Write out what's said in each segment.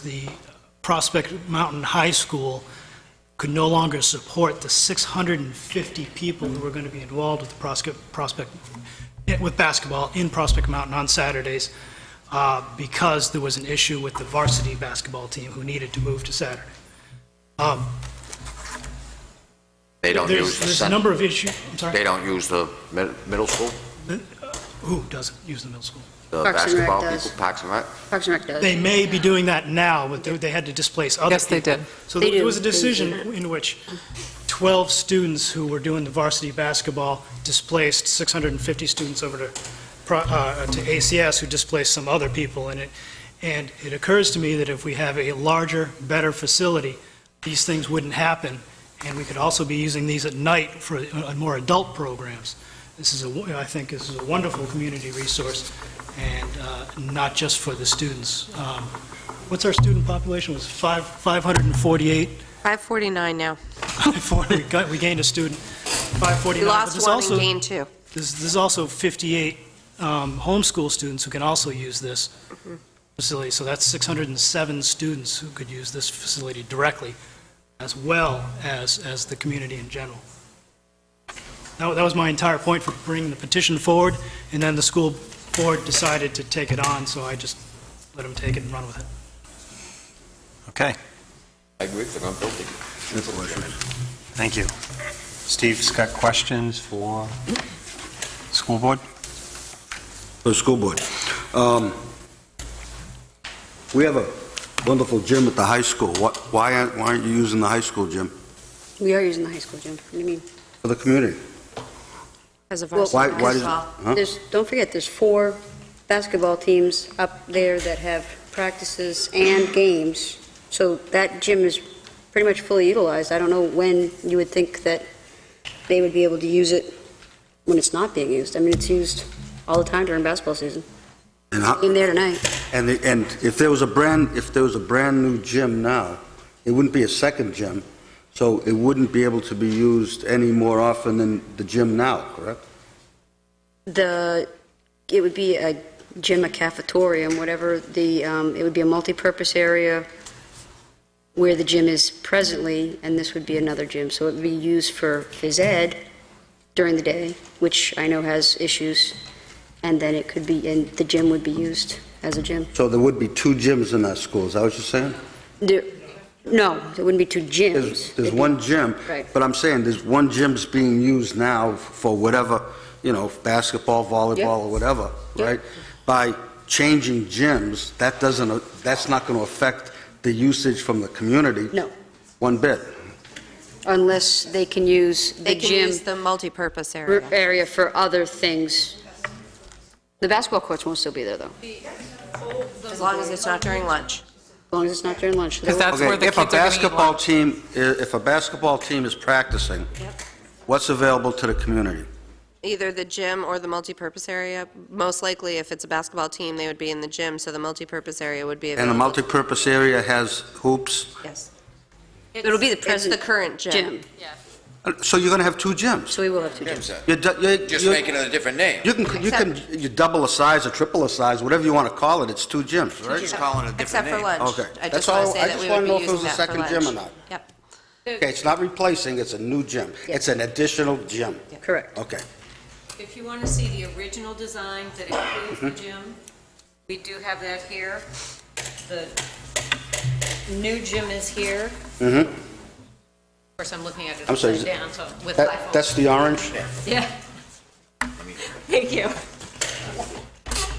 the Prospect Mountain High School could no longer support the 650 people who were going to be involved with the Prospect, Prospect, with basketball in Prospect Mountain on Saturdays, uh, because there was an issue with the varsity basketball team who needed to move to Saturday. Oh, They don't There's, use the, there's a cen- number of issues, I'm they sorry, don't use the mid- middle school, who doesn't use the middle school? the Parks and Rec basketball does. people, Parks and Rec? Parks and Rec does. They may be doing that now, but they- they had to displace other people. Yes, they did. So They there do. was a They do decision that. in which 12 students who were doing the varsity basketball displaced 650 students over to pro- uh, to ACS, who displaced some other people in it. And it occurs to me that if we have a larger, better facility, these things wouldn't happen, and we could also be using these at night for uh, more adult programs. This is, a wo- I think this is a wonderful community resource, and uh, not just for the students. Um, What's our student population? It was five 548 549 now. before we got, we gained a student, We 549. but lost there's one also- and gained two. There's, there's also 58 um, homeschool students who can also use this Mm-hmm. facility, so that's 607 students who could use this facility directly, as well as, as the community in general. That wa- that was my entire point for bringing the petition forward, and then the school board decided to take it on, so I just let them take it and run with it. Okay, I agree, they're not building. thank you. Steve's got questions for school board? The school board. Um, We have a wonderful gym at the high school. What, why aren't, why aren't you using the high school gym We are using the high school gym. What do you mean? for the community? As of Well, Why, why does, because huh? There's, don't forget, there's four basketball teams up there that have practices and games. So that gym is pretty much fully utilized. I don't know when you would think that they would be able to use it when it's not being used. I mean, it's used all the time during basketball season. And how- In there tonight. And, the- and if there was a brand, if there was a brand-new gym now, it wouldn't be a second gym, so it wouldn't be able to be used any more often than the gym now, correct? The, it would be a gym, a cafetorium, whatever the, um, it would be a multipurpose area where the gym is presently, and this would be another gym. So it would be used for phys ed during the day, which I know has issues, and then it could be, and the gym would be used as a gym. So there would be two gyms in that school, is that what you're saying? There- No, there wouldn't be two There's, gyms. there's one gym. Right. But I'm saying, there's one gym's being used now for whatever, you know, basketball, volleyball, or whatever, Yeah. right? By changing gyms, that doesn't, that's not going to affect the usage from the community No, one bit. unless they can use the They can gym. use the multipurpose r- area. area for other things. The basketball courts won't still be there, though, As long as it's not during lunch. as long as it's not during lunch. Because that's Okay, where the kids are going to eat If a basketball lunch. team, i- if a basketball team is practicing, what's available to the community? Either the gym or the multipurpose area. Most likely, if it's a basketball team, they would be in the gym, so the multipurpose area would be And the available. multipurpose area has hoops, Yes. It'll be the It's the present current gym. gym, Uh, so you're going to have two gyms. so we will have two gyms. You're du- you're- Just you're- making it a different name. You can, you can, you double a size or triple a size, whatever you want to call it, it's two gyms, We're right? just calling it a different Except for name. lunch. Okay. I That's just want to all- say I that just we wanna would be know if it was using that a for second lunch. gym or not. Yep. Okay, it's not replacing, it's a new gym. It's an additional gym. Correct. Okay. If you want to see the original design that includes Mm-hmm. the gym, we do have that here. The new gym is here. Of Mm-hmm. course, I'm looking at it I'm sorry, upside is it- down, so with my That, phone. that's the orange? Yeah. Thank you.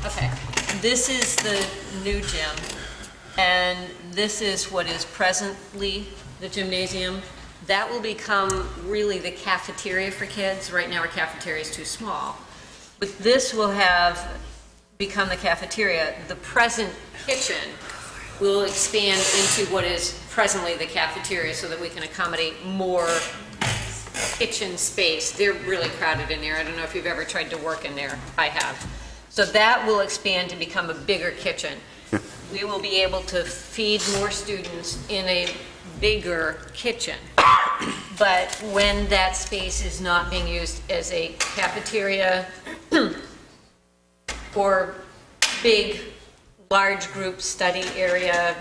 Okay, this is the new gym, and this is what is presently the gymnasium. That will become really the cafeteria for kids. Right now, our cafeteria is too small. But this will have become the cafeteria. The present kitchen will expand into what is presently the cafeteria so that we can accommodate more kitchen space. They're really crowded in there. I don't know if you've ever tried to work in there. I have. So that will expand to become a bigger kitchen. We will be able to feed more students in a bigger kitchen. But when that space is not being used as a cafeteria or big, large group study area,